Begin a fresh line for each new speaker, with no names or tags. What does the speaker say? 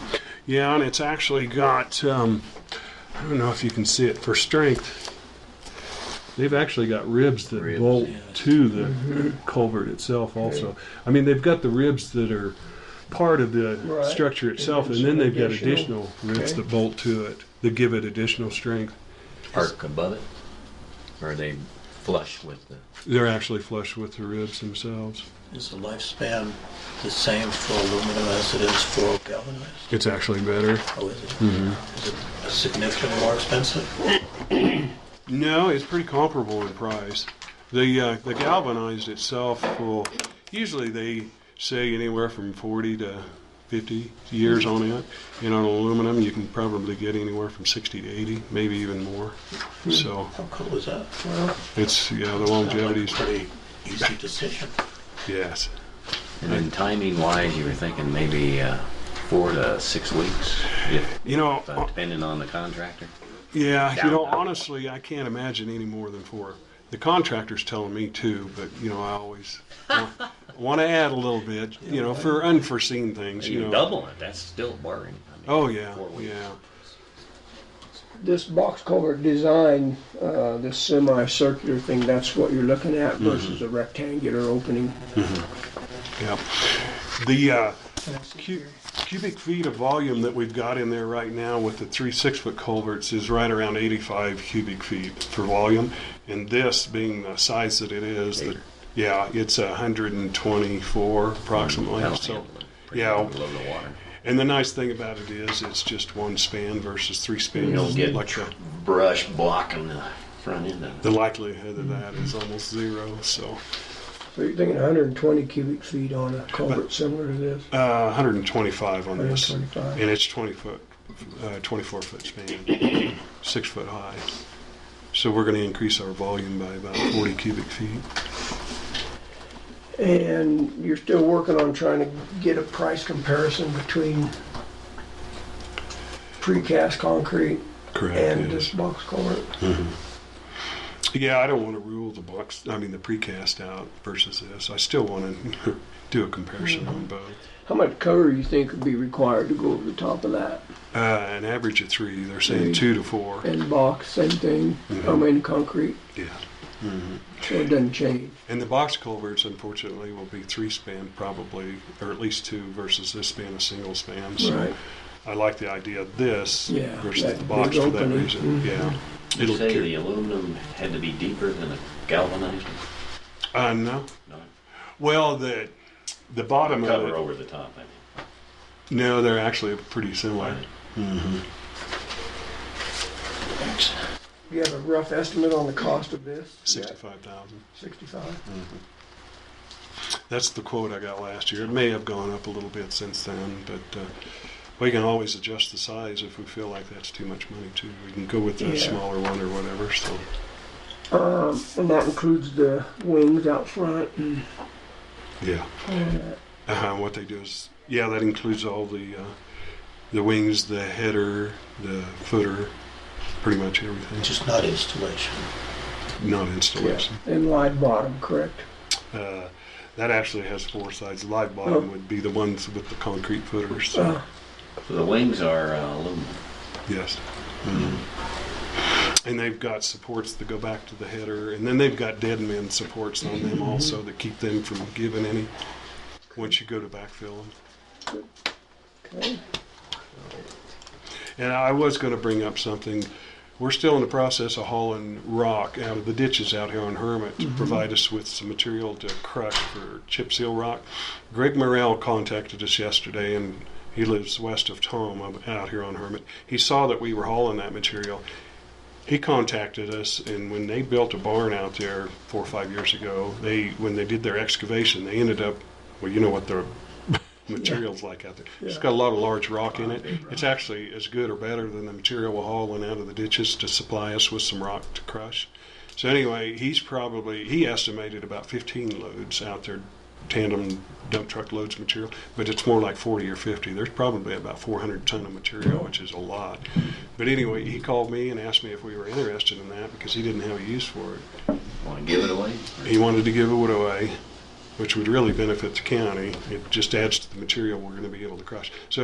Yeah, and it's actually got, um, I don't know if you can see it for strength. They've actually got ribs that
Ribs,
bolt
yeah.
to the culvert itself, also. I mean, they've got the ribs that are part of the
Right.
structure itself,
then
and then
some
they've got
additional-
additional ribs
okay.
that bolt to it that give it additional strength.
arc above it? Or are they flush with the?
They're actually flush with the ribs themselves.
Is the lifespan the same for aluminum as it is for galvanized?
It's actually better.
Or is it, is it significantly more expensive?
No, it's pretty comparable in price. The uh, the galvanized itself will usually they say anywhere from forty to fifty years on it, and on aluminum you can probably get anywhere from sixty to eighty, maybe even more. So
How cool is that? Well,
it's yeah, the
sounds like a
longevity's
pretty easy decision.
yes.
And then timing wise, you were thinking maybe uh, four to six weeks, if,
You know,
uh, depending on the contractor.
Yeah, you
down.
know, honestly, I can't imagine any more than four. The contractor's telling me two, but you know, I always want to add a little bit, you know, for unforeseen things. You
You
know,
double it, that's still boring. I mean,
Oh yeah,
four weeks.
yeah.
This box culvert design, uh, this semi-circular thing, that's what you're looking at versus a rectangular opening.
Yeah. The uh, cu- cubic feet of volume that we've got in there right now with the three six foot culverts is right around 85 cubic feet for volume. And this being the size that it is, the, yeah, it's 124 approximately.
That'll
So,
handle it pretty
yeah.
well below the water.
and the nice thing about it is it's just one span versus three spans.
You don't get
like the,
brush blocking the front end of it.
the likelihood of that is almost zero. So
So you're thinking 120 cubic feet on a culvert similar to this?
uh, 125 on this,
125.
and it's 20 foot, uh, 24 foot span, six foot high. So we're going to increase our volume by about 40 cubic feet.
And you're still working on trying to get a price comparison between precast concrete
Correct.
and this box culvert?
Yeah, I don't want to rule the box. I mean the precast out versus this. I still want to do a comparison on both.
How much cover you think would be required to go over the top of that?
Uh, an average of three. They're saying
Three.
two to four.
And box, same thing, I mean concrete,
Yeah.
so it doesn't change.
And the box culverts, unfortunately, will be three span probably, or at least two versus this span, a single span. So I like the idea of this
Yeah,
versus
that
the box
big
for that
opening. Mm-hmm.
reason. Yeah.
Did you
It'll
say
carry-
the aluminum had to be deeper than the galvanized? one?
uh, no.
No,
Well, the the bottom of
cover
it.
over the top, I mean.
No, they're actually pretty similar.
You have a rough estimate on the cost of this?
Sixty-five thousand.
Sixty-five?
That's the quote I got last year. It may have gone up a little bit since then, but uh, we can always adjust the size if we feel like that's too much money too. We can go with the
Yeah.
smaller one or whatever. So.
Um, and that includes the wings out front and
Yeah.
all that.
Uh, what they do is, yeah, that includes all the uh, the wings, the header, the footer, pretty much everything.
Just not installation.
Not installation.
And wide bottom, correct?
Uh, that actually has four sides. Live bottom
Oh.
would be the ones with the concrete footers. So,
Uh,
So the wings are uh, aluminum.
Yes.
Hmm.
Mm-hmm. And they've got supports that go back to the header, and then they've got dead men supports on
Mm-hmm.
them also that keep them from giving any once you go to backfill them.
okay.
And I was going to bring up something. We're still in the process of hauling rock out of the ditches out here on Hermit to provide us with some material to crush for chip seal rock. Greg Morrell contacted us yesterday, and he lives west of Tom up- out here on Hermit. He saw that we were hauling that material. He contacted us, and when they built a barn out there four or five years ago, they when they did their excavation, they ended up well, you know what the material's like out there. It's got a lot of large rock in it. It's actually as good or better than the material we're hauling out of the ditches to supply us with some rock to crush. So anyway, he's probably he estimated about 15 loads out there, tandem dump truck loads of material, but it's more like 40 or 50. There's probably about 400 ton of material, which is a lot. But anyway, he called me and asked me if we were interested in that because he didn't have a use for it.
Want to give it away?
He wanted to give it away, which would really benefit the county. It just adds to the material we're going to be able to crush. So